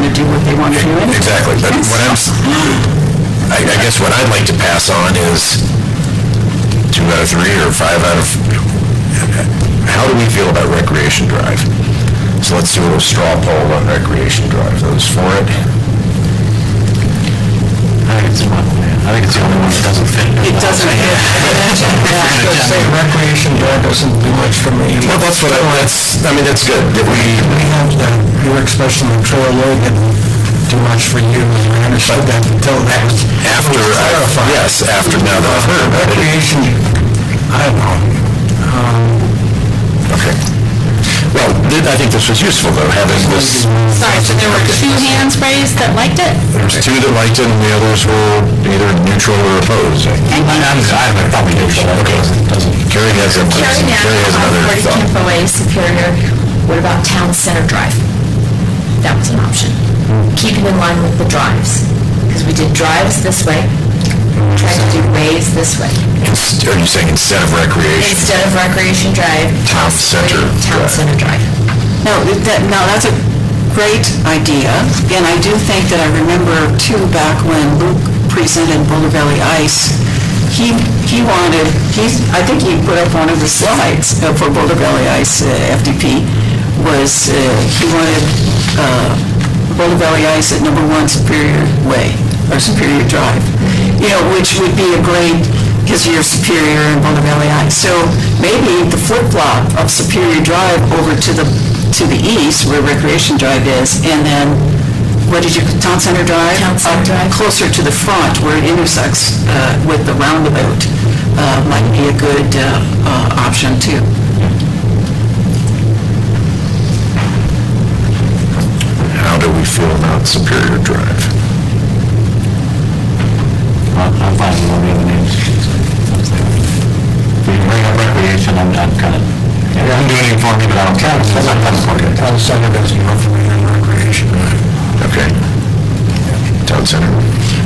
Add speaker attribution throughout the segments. Speaker 1: want to feel it.
Speaker 2: Exactly, but what I'm, s- I, I guess what I'd like to pass on is two out of three or five out of, how do we feel about recreation drive? So let's do a little straw poll on recreation drive, those for it?
Speaker 3: I think it's the one, I think it's the only one that doesn't fit.
Speaker 1: It doesn't fit.
Speaker 2: recreation drive doesn't do much for me. Well, that's what I, that's, I mean, that's good, that we,
Speaker 4: You were especially on Trail Road didn't do much for you, and I understood that until that was
Speaker 2: after, I- yes, after now that I've heard about it.
Speaker 4: creation. I don't know.
Speaker 2: Okay. Well, th- I think this was useful, though, having this,
Speaker 5: Sorry, so there were two hands raised that liked it?
Speaker 2: there's two that liked it, and the others were either neutral or opposed.
Speaker 3: I'm, I'm probably neutral, okay, doesn't.
Speaker 2: Carrie has a,
Speaker 5: Carrie
Speaker 2: Carrie
Speaker 1: uh,
Speaker 2: has
Speaker 5: Navin,
Speaker 2: another
Speaker 5: 40
Speaker 2: thought.
Speaker 5: Campo Way, Superior. What about Town Center Drive? That was an option.
Speaker 2: Hmm.
Speaker 5: Keeping in line with the drives, because we did drives this way, tried to do ways this way.
Speaker 2: Ins- Are you saying instead of recreation?
Speaker 5: Instead of Recreation Drive,
Speaker 2: Town Center
Speaker 5: possibly Town
Speaker 2: Drive.
Speaker 5: Center Drive.
Speaker 1: No, that, no, that's a great idea, and I do think that I remember too, back when Luke presented Boulder Valley Ice, he, he wanted, he's, I think he put up one of the slides uh, for Boulder Valley Ice uh, FDP, was, uh, he wanted uh, Boulder Valley Ice at number one Superior Way, or Superior Drive, you know, which would be a great because you're Superior and Boulder Valley High. So maybe the flip-flop of Superior Drive over to the, to the east where Recreation Drive is, and then, what did you, Town Center Drive?
Speaker 5: Town Center
Speaker 1: Up
Speaker 5: Drive.
Speaker 1: Closer to the front where it intersects uh, with the roundabout uh, might be a good uh, uh, option too.
Speaker 2: How do we feel about Superior Drive?
Speaker 3: I'm I'm fine with one of the other names. If you bring up recreation, I'm, I'm kind of, I'm doing it for me, but I don't care. I'm kind of for it.
Speaker 4: Town Center doesn't offer me any recreation.
Speaker 2: Okay. Town Center?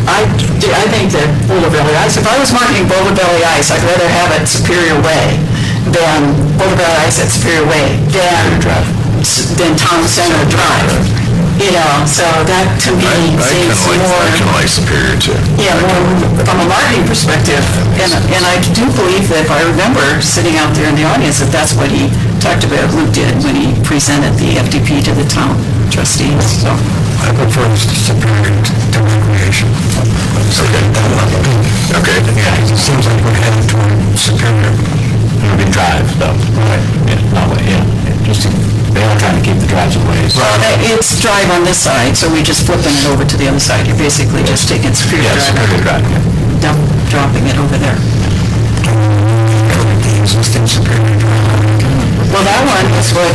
Speaker 1: I, I think that Boulder Valley Ice, if I was marketing Boulder Valley Ice, I'd rather have it Superior Way than Boulder Valley Ice at Superior Way than, s- than Town Center Drive. You know, so that to
Speaker 2: I
Speaker 1: me
Speaker 2: I kinda
Speaker 1: seems
Speaker 2: like, I kinda
Speaker 1: more,
Speaker 2: like Superior too.
Speaker 1: yeah, more from a marketing perspective. And, and I do believe that if I remember sitting out there in the audience, that that's what he talked about, Luke did when he presented the FDP to the town trustees, so.
Speaker 4: I prefer Superior to recreation.
Speaker 2: Okay.
Speaker 4: Yeah, it seems like we're heading toward Superior.
Speaker 3: It would be drive, though. Right. Yeah, no, but, yeah, just, they are trying to keep the drives away, so.
Speaker 1: Uh, It's drive on this side, so we're just flipping it over to the other side. You're basically just taking Superior
Speaker 3: Yeah,
Speaker 1: Drive
Speaker 3: Superior Drive, yeah.
Speaker 1: and dump- dropping it over there.
Speaker 4: The existing Superior
Speaker 1: Well, that one is what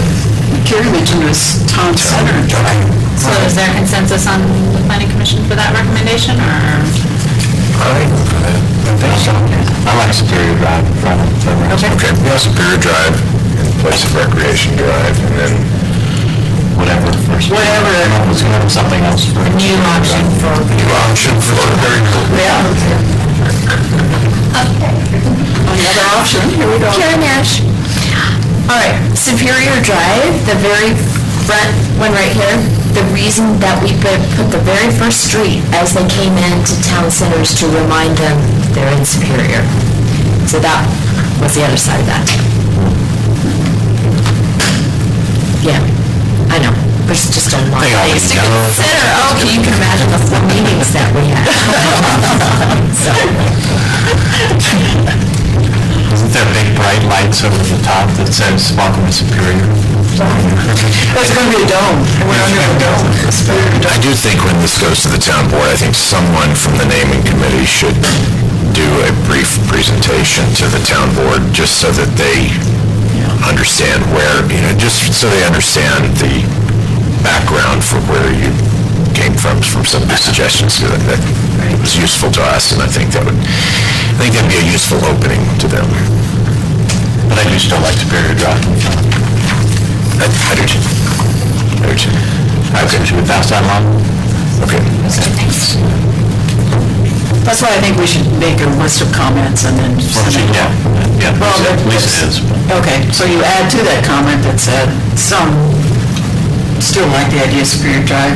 Speaker 1: Carrie mentioned was Town Center Drive.
Speaker 5: So is there consensus on the planning commission for that recommendation, or?
Speaker 3: I like Superior Drive, front of, front of.
Speaker 2: Okay, yeah, Superior Drive in place of Recreation Drive, and then,
Speaker 3: Whatever first.
Speaker 1: Whatever.
Speaker 3: Come up with come up with something else for.
Speaker 1: New option for, yeah. Another option, here we go.
Speaker 5: Karen Nash. All right, Superior Drive, the very front one right here, the reason that we put put the very first street as they came into town centers to remind them they're in Superior. So that was the other side of that. Yeah, I know, there's just a lot of things to consider. Okay, you can imagine the meetings that we had. So,
Speaker 3: Isn't there big bright lights over the top that says welcome to Superior?
Speaker 1: That's going to be a dome. We're under a dome.
Speaker 2: I do think when this goes to the town board, I think someone from the naming committee should do a brief presentation to the town board, just so that they understand where, you know, just so they understand the background for where you came from, from some of the suggestions, so that that was useful to us, and I think that would, I think that'd be a useful opening to them.
Speaker 3: But I do still like Superior Drive.
Speaker 2: I I do too. I do too.
Speaker 3: Okay, should we pass that along?
Speaker 2: Okay.
Speaker 1: That's why I think we should make a list of comments and then send it
Speaker 3: Yeah, yeah,
Speaker 1: Well,
Speaker 3: at
Speaker 1: but-
Speaker 3: least it is.
Speaker 1: Okay, so you add to that comment that said, some still like the idea of Superior Drive,